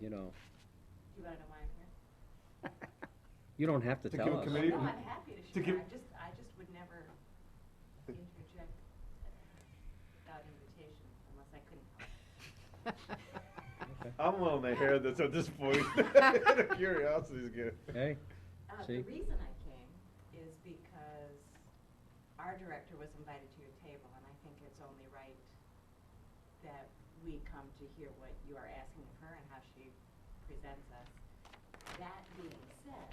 you know, You wanna know why I'm here? you don't have to To tell give us. committee- No, I'm happy to to share, I give- just, I just would never interject without invitation unless I couldn't help. it. I'm willing to hear this at this point. Curiosity's good. Hey, Uh, See? the reason I came is because our director was invited to your table, and I think it's only right that we come to hear what you are asking of her and how she presents us. That being said,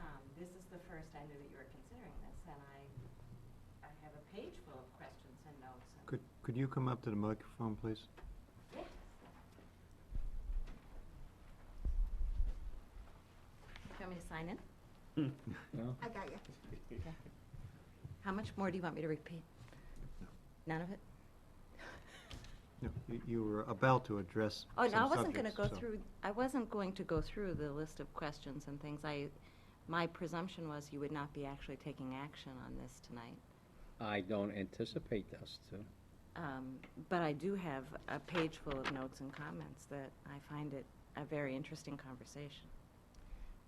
um, this is the first I knew that you were considering this, and I, I have a page full of questions and notes and. Could, could you come up to the microphone, please? Yes. Do you want me to sign in? no, I got you. How much more do you want me to repeat? No. None of it? No, you, you were about to address Oh, some no, I wasn't going to go subjects, so- through, I wasn't going to go through the list of questions and things. I, my presumption was you would not be actually taking action on this tonight. I don't anticipate us to. Um, But I do have a page full of notes and comments that I find it a very interesting conversation.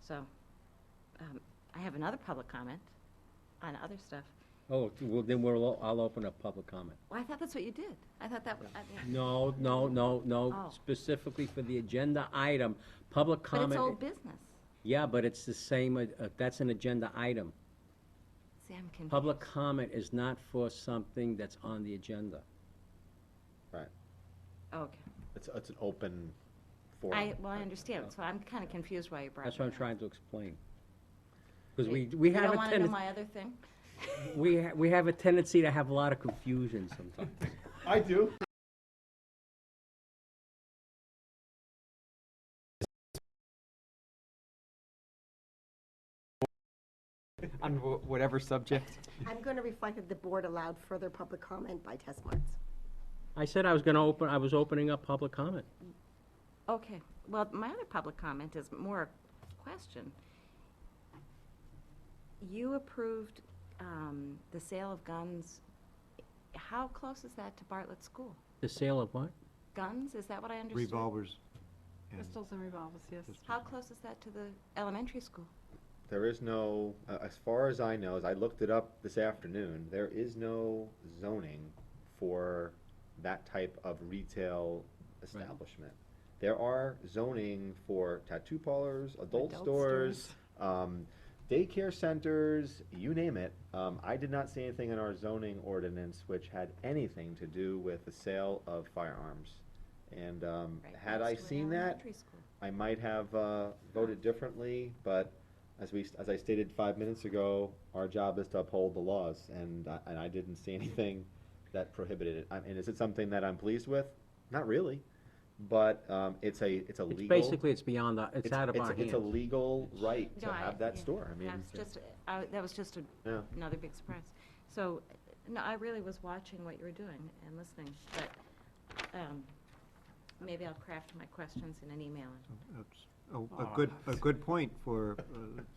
So um, I have another public comment on other stuff. Oh, well, then we'll, o- I'll open up public comment. Well, I thought that's what you did. I thought that, was- I mean, No, no, no, no, Oh. specifically for the agenda item, public but comment. it's old business. Yeah, but it's the same, uh, uh, that's an agenda item. See, I'm confused. Public comment is not for something that's on the agenda. Oh, Okay. It's, it's an open forum. I, well, I understand, so I'm kind of confused why you brought it up. uh, That's what I'm trying to explain. Because we, You- we you have a don't want to know tendency, my other thing? we, ha- we have a tendency to have a lot of confusion sometimes. I do. on wh- whatever subject. I'm going to reflect that the board allowed further public comment by test marks. I said I was gonna open, I was opening up public comment. Okay, well, my other public comment is more a question. You approved um, the sale of guns. How close is that to Bartlett School? The sale of what? Guns, is that what I understood? Revolvers. and- Pistols and revolvers, yes. How close is that to the elementary school? There is no, a- as far as I know, as I looked it up this afternoon, there is no zoning for that type of retail establishment. There are zoning for tattoo parlors, adult Adult stores, um, daycare centers, you name it. Um, I did not see anything in our zoning ordinance which had anything to do with the sale of firearms. And, um, Right had I next to an seen that, Elementary school. I might have uh, voted differently, but as we, as I stated five minutes ago, our job is to uphold the laws, and, I- and I didn't see anything that prohibited it. I mean, is it something that I'm pleased with? Not really, but um, it's a, it's a It's legal. basically, it's beyond, our- it's out of our It's a hands. legal right to No, I- have that yeah. store, I mean. That's just, I- that was just a Yeah. another big surprise. So, no, I really was watching what you were doing and listening, but um, maybe I'll craft my questions in an email. That's a- A, good, a good point for uh,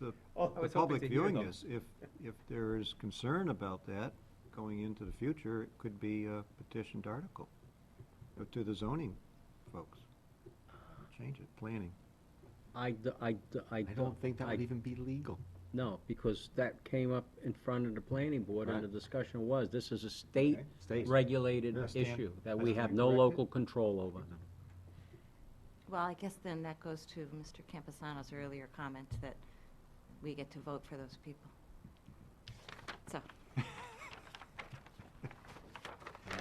the, Oh, I the was hoping public to hear viewing them. this. If, if there is concern about that going into the future, it could be a petitioned article uh, to the zoning folks. Change it, planning. I, d- I, d- I don't. I- even be legal. No, because that came up in front of the planning board, and the discussion was, this is a Okay, state. state-regulated Yeah, Stan, issue that I we stand have no corrected. local control over. Well, I guess then that goes to Mr. Campesano's earlier comment that we get to vote for those people. So, You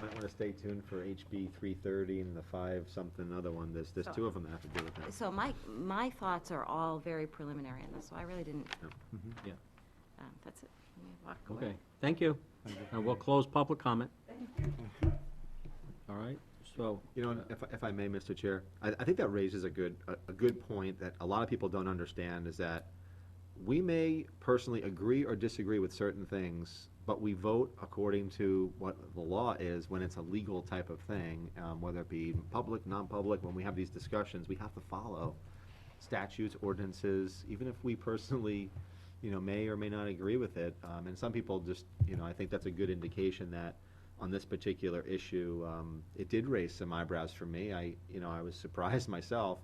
might want to stay tuned for HB three thirty and the five something other one, there's, there's So- two of them that have to do with that. so my, my thoughts are all very preliminary in this, so I really didn't. Yeah. Yeah. Um, That's it. Let me walk away. Okay, thank you. And we'll close public comment. All right, so, You know, if, if I may, Mr. Chair, I, I think that raises a good, a, a good point that a lot of people don't understand is that we may personally agree or disagree with certain things, but we vote according to what the law is when it's a legal type of thing, um, whether it be public, non-public, when we have these discussions, we have to follow statutes, ordinances, even if we personally, you know, may or may not agree with it. Um, and some people just, you know, I think that's a good indication that on this particular issue, um, it did raise some eyebrows for me. I, you know, I was surprised myself